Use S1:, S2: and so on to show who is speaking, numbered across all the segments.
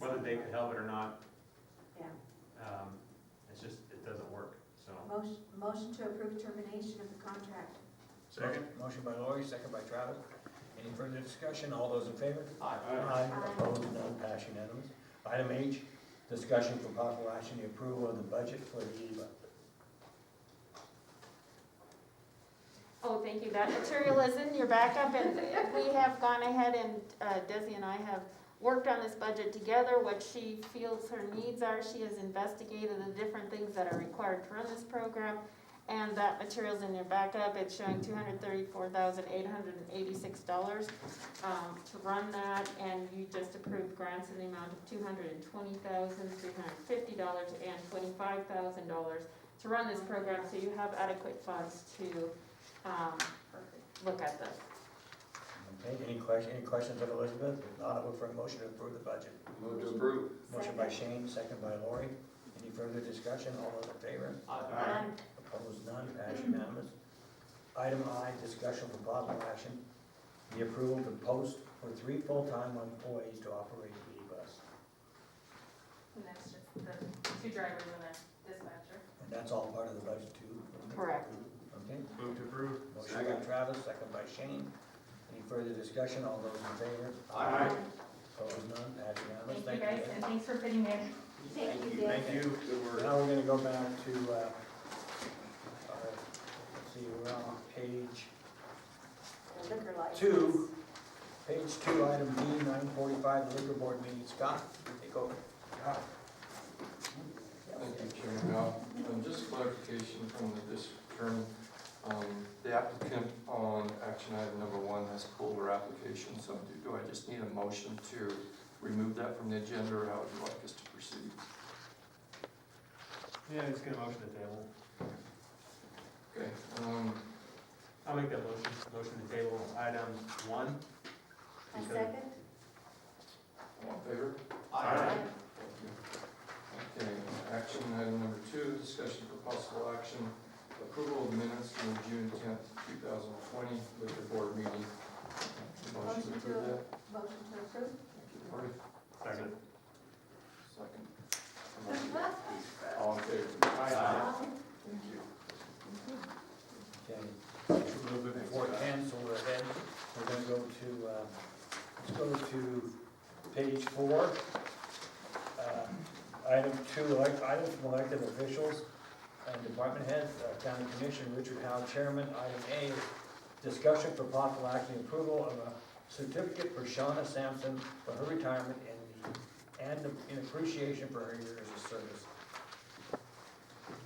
S1: help it or not.
S2: Yeah.
S1: Um, It's just, it doesn't work, so.
S2: Motion, motion to approve termination of the contract.
S1: Second.
S3: Motion by Lori, second by Travis. Any further discussion? All those in favor?
S1: Aye.
S3: Opposed, none, pass unanimous. Item H, discussion for possible action, the approval of the budget for the EVA.
S4: Oh, thank you. That material is in your backup, and we have gone ahead and, uh, Desi and I have worked on this budget together, what she feels her needs are. She has investigated the different things that are required to run this program, and that material's in your backup. It's showing two hundred thirty-four thousand, eight hundred and eighty-six dollars, um, to run that, and you just approved grants in the amount of two hundred and twenty thousand, three hundred and fifty dollars and twenty-five thousand dollars to run this program, so you have adequate funds to um, look at this.
S3: Okay, any question, any questions of Elizabeth? If not, I look for a motion to approve the budget.
S5: Move to approve.
S3: Motion by Shane, second by Lori. Any further discussion? All those in favor?
S1: Aye.
S3: Opposed, none, passed unanimous. Item I, discussion for possible action, the approval to post for three full-time employees to operate the E-Bus.
S6: And that's just the two drivers and a dispatcher.
S3: And that's all part of the budget too?
S4: Correct.
S3: Okay,
S1: Move to approve.
S3: motion by
S5: Second.
S3: Travis, second by Shane. Any further discussion? All those in favor?
S5: Aye.
S3: Opposed, none, passed unanimous.
S6: Thank you guys, and thanks for fitting me in.
S2: Thank you, Dave.
S1: Thank you.
S5: Good work.
S3: Now we're gonna go back to, uh, our, let's see, we're on page
S2: Liquor license.
S3: Two. Page two, item D, nine forty-five, liquor board meeting, Scott, take over.
S7: Thank you, Chairman. Now, um, just clarification from the district attorney. Um, The applicant on action item number one has pulled her application, so do- do I just need a motion to remove that from the agenda, or how would you like us to proceed?
S1: Yeah, it's gonna motion to table.
S7: Okay, um,
S1: I'll make that motion, motion to table item one.
S2: A second?
S7: all in favor?
S1: Aye.
S7: Okay, action item number two, discussion for possible action, approval of minutes from the June tenth, two thousand twenty, liquor board meeting. Motion to approve that?
S2: Motion to approve?
S7: Thank you, Lori.
S1: Second.
S7: Second. All in favor?
S1: Aye.
S7: Thank you.
S3: Okay, a little bit before ten, so we're ahead, we're gonna go to, uh, let's go to page four. Uh, Item two, elect, items from elected officials and department heads, uh, county commission, Richard Howe, chairman, item A, discussion for possible action, approval of a certificate for Shauna Sampson for her retirement and, the- and in appreciation for her years of service.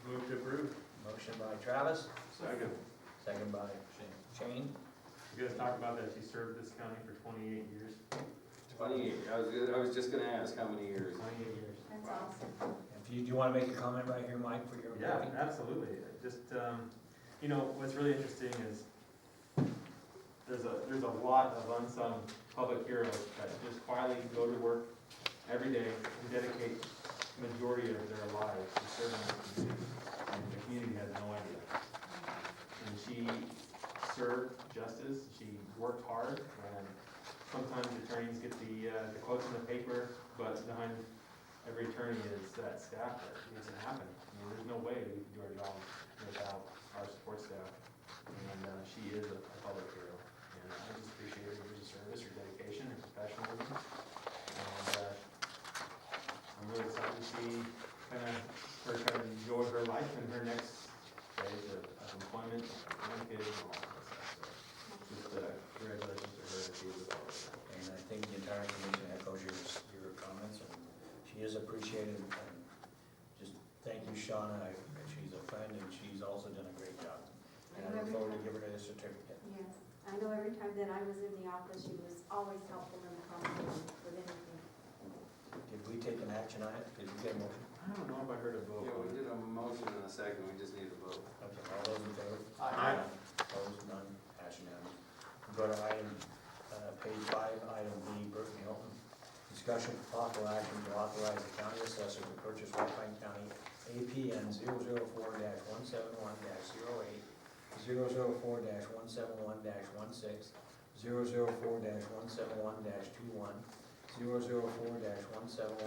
S1: Move to approve.
S3: Motion by Travis,
S1: Second.
S3: second by Shane.
S1: You guys talk about that she served this county for twenty-eight years.
S5: Twenty-eight, I was, I was just gonna ask how many years.
S1: Twenty-eight years.
S2: That's awesome.
S3: If you, do you want to make a comment right here, Mike, for your?
S1: Yeah, absolutely. Just, um, you know, what's really interesting is there's a, there's a lot of unsung public heroes that just quietly go to work every day and dedicate the majority of their lives to serving the community. And the community has no idea. And she served justice, she worked hard, and sometimes attorneys get the, uh, the quotes in the paper, but behind every attorney is that staff that makes it happen. I mean, there's no way we can do our job without our support staff. And uh, she is a a public hero. And I just appreciate her years of service, her dedication, her professionalism. And uh, I'm really excited to see kind of her kind of enjoy her life and her next phase of of employment, and kids, and all that stuff. So just uh, congratulations to her and she is a public hero.
S3: And I think the entire commission echoes your, your comments, and she is appreciated, and just thank you, Shauna, I- she's a friend, and she's also done a great job. And I look forward to giving her the certificate.
S2: Yes, I know every time that I was in the office, she was always helpful in the conversation with anything.
S3: Did we take an action on it? Did we get a motion?
S1: I don't know if I heard a
S5: Yeah, we
S1: vote.
S5: did a motion and a second, we just need a vote.
S3: Okay, all those in favor?
S1: Aye.
S3: Opposed, none, pass unanimous. Go to item, uh, page five, item B, Burton Hilton. Discussion for possible action to authorize the county assessor to purchase Alpine County APN 4 one seven one 8 004 one seven one 16 one six, zero zero four one seven one 21 004 one seven one